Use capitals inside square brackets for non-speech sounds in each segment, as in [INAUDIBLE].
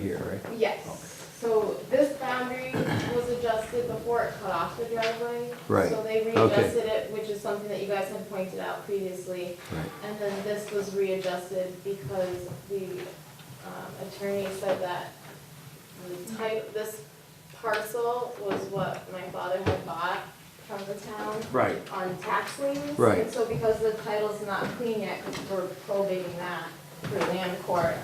here, right? Yes, so this boundary was adjusted before it cut off the driveway. Right, So they readjusted it, which is something that you guys had pointed out previously. Right. And then this was readjusted because the um, attorney said that the type, this parcel was what my father had bought from the town Right. on tax liens. Right. And so because the title's not clean yet, because we're probating that through land court,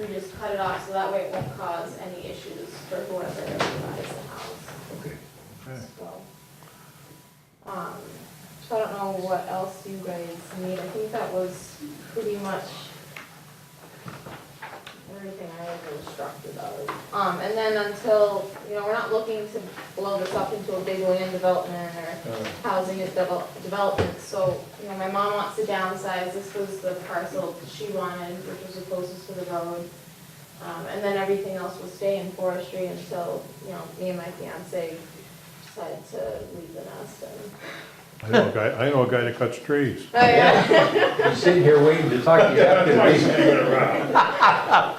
we just cut it off so that way it won't cause any issues for whoever buys the house, Okay. so. Um, so I don't know what else you guys need, I think that was pretty much everything I was instructed of. Um, and then until, you know, we're not looking to blow this up into a big land development or housing is devel- development, so, you know, my mom wants to downsize, this was the parcel she wanted, which was the closest to the road. Um, and then everything else will stay in forestry until, you know, me and my fiance decide to leave the nest and. I know a guy, I know a guy that cuts trees. Oh, yeah. I'm sitting here waiting to talk to you after.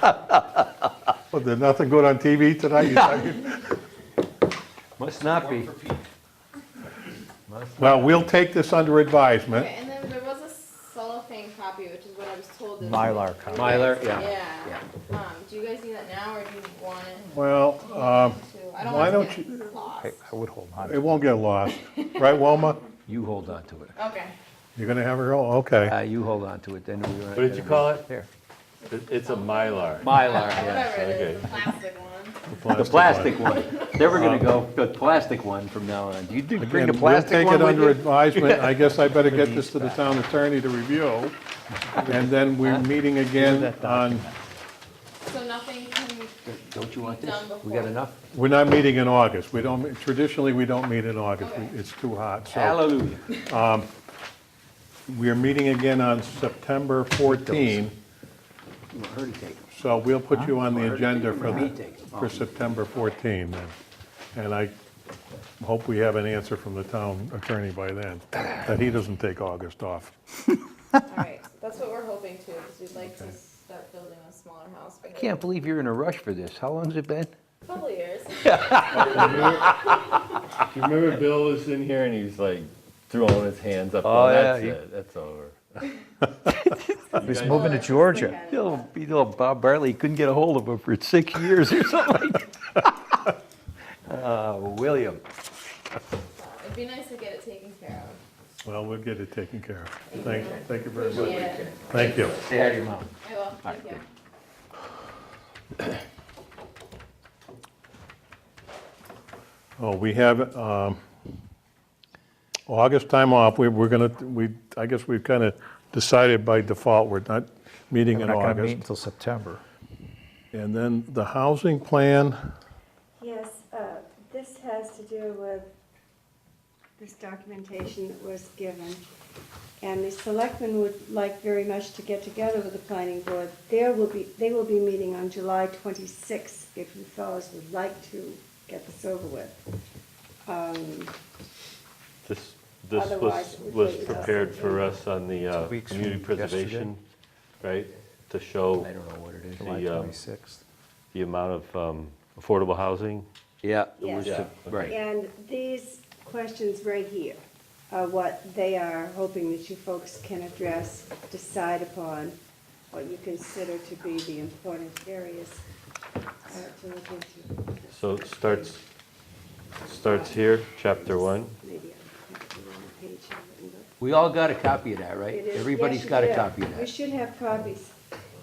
[LAUGHS] Well, there's nothing good on TV tonight. you talking- Must not be. Must [LAUGHS] Well, we'll take this under advisement. Okay, and then there was a cellophane copy, which is what I was told. is- Mylar copy. Mylar, yeah. Yeah, um, do you guys need that now, or do you want it Well, uh, to, I don't why want it to don't get lost. I I would hold on. it won't get lost, right, Wilma? You hold on to it. Okay, You're gonna have her, oh, okay. Uh, you hold on to it, then we. What did you call it? There. It- It's a Mylar. [LAUGHS] Mylar, yes. whatever it is, okay. the plastic one. The plastic one. They were gonna go, the plastic one from now on. Do you do- bring the And Uh, we'll plastic take it one under with you? [LAUGHS] advisement. I guess I better get this to the town attorney to review. And then we're meeting again on, So nothing can, Don't you want this? Done before. We got enough? we're not meeting in August. We don't, traditionally, we don't meet in August. We- Okay. It's too hot, so. Hallelujah. We are meeting again on September 14, You want her to take it. so we'll put you Oh, on the agenda for Me the, take it. for September 14 then. And I hope we have an answer from the town attorney by then, that he doesn't take August off. alright, that's what we're hoping to, because we'd like to start building a smaller house. I can't believe you're in a rush for this. How long's it been? Couple [LAUGHS] years. Do you remember Bill was in here and he was like throwing his hands up? Oh, yeah, That's you- it, that's over. He's moving to Georgia. You know, you know, Bob Bartley couldn't get a hold of him for six years or something like that. [LAUGHS] Uh, William. It'd be nice to get it taken care Well, we'll get it taken care of. Thank, thank you very of. much. Yeah, Thank you. Say hi to your mom. I will, thank you. Oh, we have, um, August time off, we, we're gonna, we, I guess we've kind of decided by default, we're not meeting We're in not going to meet August. until September. And then the housing plan, Yes, uh, this has to do with this documentation that was given. And the selectmen would like very much to get together with the planning board. There will be, they will be meeting on July twenty-sixth, if you fellows would like to get this over with. Um, This, this Otherwise, was, it would was be- prepared for us on the uh, Two weeks community from yesterday. preservation, right? To show I don't know what it is. July The, um, 26th. the amount of um, affordable housing. Yeah. it Yes. was Yeah, to- Right. And these questions right here are what they are hoping that you folks can address, decide upon, what you consider to be the important areas uh, to look into. So it starts, starts here, chapter one. Maybe I have the wrong page here written, We all got a copy of that, but right? it is- Everybody's yes, you got a do. copy of We that. should have copies.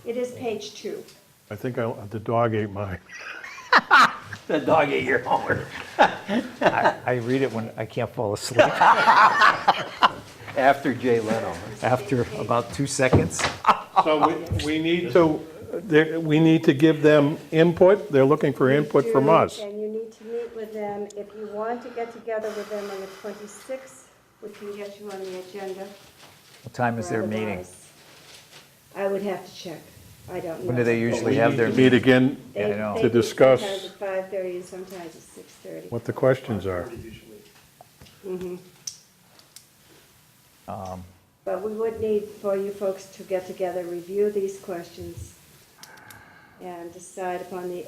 It is page two. I think I, the dog ate mine. The dog ate your homework. I read it when I can't fall asleep [LAUGHS] After Jay Leno. after about two seconds. So we, we need to, there- we need to give them input, they're looking for input from Do, us. And you need to meet with them. If you want to get together with them on the 26th, we can get you on the agenda. What time is their meeting? Otherwise, I would have to check. I don't know. When do they usually have their Meet meeting? again They- I know. they to meet discuss Sometimes at 5:30 and sometimes at 6:30. what the questions are. But we would need for you folks to get together, review these questions, and decide upon the